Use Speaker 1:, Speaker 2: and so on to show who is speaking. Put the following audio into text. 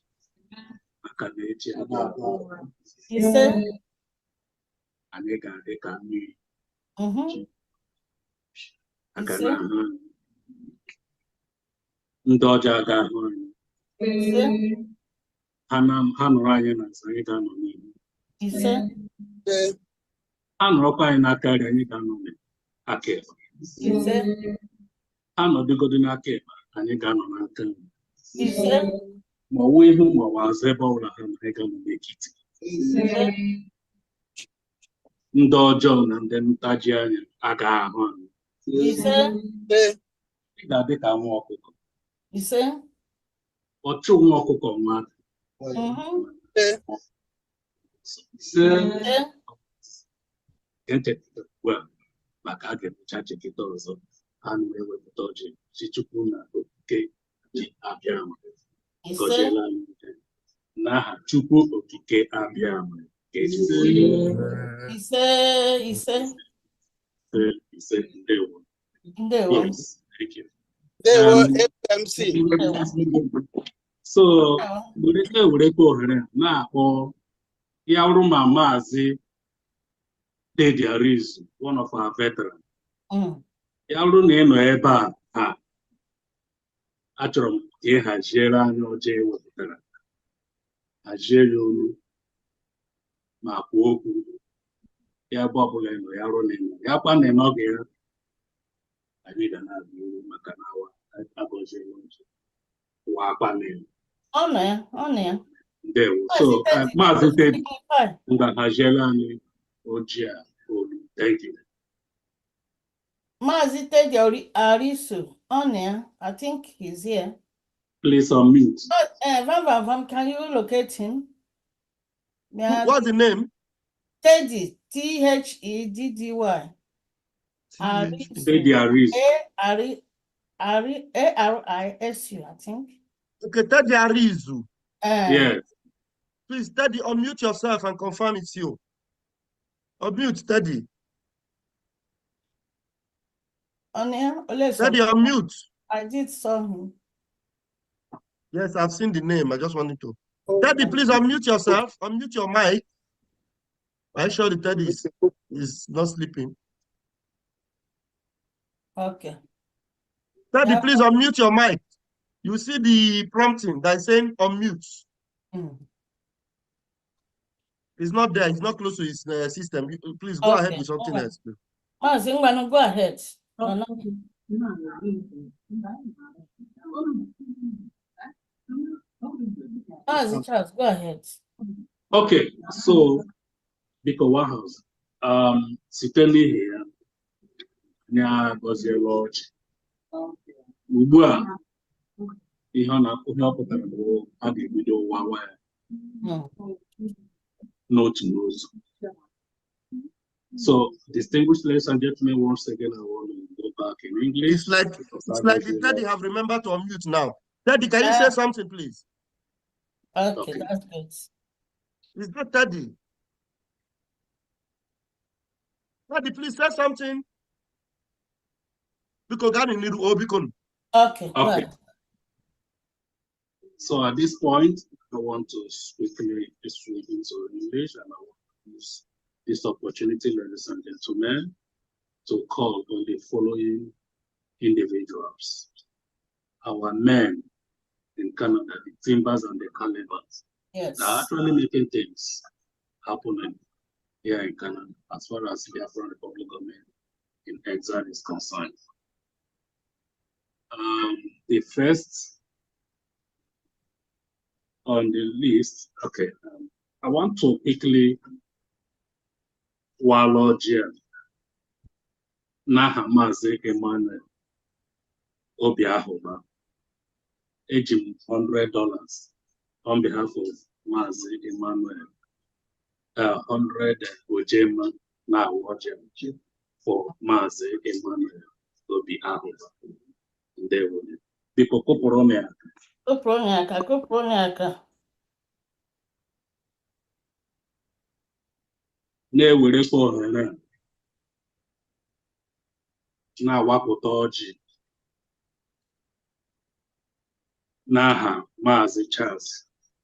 Speaker 1: ka na-eji aka abụọ
Speaker 2: ise
Speaker 1: anyị ga-adị ka mmiri
Speaker 2: mhm,
Speaker 1: aga
Speaker 2: Ise.
Speaker 1: na ahụ anyị. ndị ọjọọ aga ahụ anyị
Speaker 2: ise
Speaker 1: ha na- ha nụrụ anyị na nsọ anyị ga-anọ n'ihu
Speaker 2: ise
Speaker 1: ha nụrụkwa anyị n'aka nri anyị ga-anọ n'aka ekpe
Speaker 2: ise
Speaker 1: ha nọdụgodu n'aka ekpe anyị ga-anọ n'aka nri
Speaker 2: ise
Speaker 1: ma ọwụ ihu ma ọwụ azụ ebe ọbụla ha na anyị ga-anọ n'ekiti ndị ọjọọ na ndị ntaji anya aga ahụ anyị
Speaker 2: ise
Speaker 1: ị ga-adị ka nwa ọkụkọ
Speaker 2: ise
Speaker 1: ọchụ nwa ọkụkọ nwa atụ.
Speaker 2: mhm,
Speaker 1: ise
Speaker 2: ise
Speaker 1: echeta ugbu a maka a ga-emecha cheketa ọzọ a na-ewepụta ọjị chi chukwu na okike ji abịa ama
Speaker 2: ise
Speaker 1: gọziela anyị niile. n'aha chukwu okike abịa ama ka ejide
Speaker 2: ise
Speaker 1: ise
Speaker 2: ise
Speaker 1: ise ndewo
Speaker 2: ndewo
Speaker 1: Yes, thank you.
Speaker 3: Ndewo
Speaker 1: Um,
Speaker 3: FMC.
Speaker 1: so were ewerekwa ohere a na-akpọ ya wụrụ ma maazị Dedi Arizu one of our veterans
Speaker 2: Mm,
Speaker 1: ya bụrụ na ị nọ ebe a taa achọrọ m ka ị haziere anyị ọjọọ e wepụtara hazie ya olu ma kwuo okwu ya ebe ọbụla ị nọ ya bụrụ na ị nọ ya kwa na ị nọghị ya anyị ga na-abịa iru maka na awa agọziela ọjọọ ụwa akpa na elu
Speaker 2: ọ nọ ya ọ nọ ya
Speaker 1: ndewo so eh, maazị Tedi
Speaker 2: Ifeanyị,
Speaker 1: ngwa haziere anyị ojii a olu thank you
Speaker 2: Maazị Teddy Ori- Arisu, on air, I think he's here.
Speaker 1: please unmute
Speaker 2: But, uh, Van Van Van, can you locate him? May I-
Speaker 3: What's the name?
Speaker 2: Teddy, T H E D D Y. Arisu,
Speaker 1: Dedi Arizu
Speaker 2: A Ari, Ari, A R I S U, I think.
Speaker 3: Okay, Daddy Arizu.
Speaker 2: Uh,
Speaker 1: yes
Speaker 3: Please, Daddy, unmute yourself and confirm it's you. Unmute, Daddy.
Speaker 2: On air, Oleso,
Speaker 3: Daddy, unmute.
Speaker 2: I did saw him.
Speaker 3: Yes, I've seen the name. I just wanted to.
Speaker 2: Oh,
Speaker 3: Daddy, please unmute yourself. Unmute your mic. I'm sure the Daddy is, is not sleeping.
Speaker 2: Okay.
Speaker 3: Daddy,
Speaker 2: Yeah.
Speaker 3: please unmute your mic. You see the prompting that is saying unmute.
Speaker 2: Mm.
Speaker 3: It's not there. It's not close to his uh, system. You- you- Please go ahead
Speaker 2: Okay,
Speaker 3: with something
Speaker 2: alright.
Speaker 3: else. please.
Speaker 2: Maazị Ngwanụ, go ahead. No, no. Maazị Charles, go ahead.
Speaker 1: Okay, so biko Wahouse, um, site n'ihi ya, anyị agọziela ọchị. Ugbu a, ihe ọ na ihe ọ pụtara bụ a ga-ebido wawa ya
Speaker 2: Mm.
Speaker 1: n'otu n'otu. So distinguished ladies and gentlemen, once again, I want to go back in English.
Speaker 3: It's like It's like the daddy have remembered to unmute now. Daddy, can you say
Speaker 2: Uh,
Speaker 3: something, please?
Speaker 2: Okay,
Speaker 1: Okay.
Speaker 2: that's good.
Speaker 3: It's not daddy. Daddy, please say something. Because God need to open.
Speaker 2: Okay, go
Speaker 1: Okay.
Speaker 2: ahead.
Speaker 1: So at this point, I want to quickly switch into English and I want to use this opportunity, ladies and gentlemen, to call on the following individuals. Our men in Canada, the Timbers and the Calibers,
Speaker 2: Yes.
Speaker 1: they are actually making things happening here in Canada as far as the African Republic of Men in exile is concerned. Um, the first on the list, okay, um, I want to quickly wallow here. N'aha Maazị Emmanuel Obiahụba, eji m hundred dollars on behalf of Maazị Emmanuel, uh, hundred Ojema na Ojem for Maazị Emmanuel Obiahụba. Ndewo. Biko kụpụrụ m ya
Speaker 2: Kopụrụ onye aka, kopụrụ onye aka.
Speaker 1: na-ewerekwa ohere a na-awapụta ọjị n'aha Maazị Charles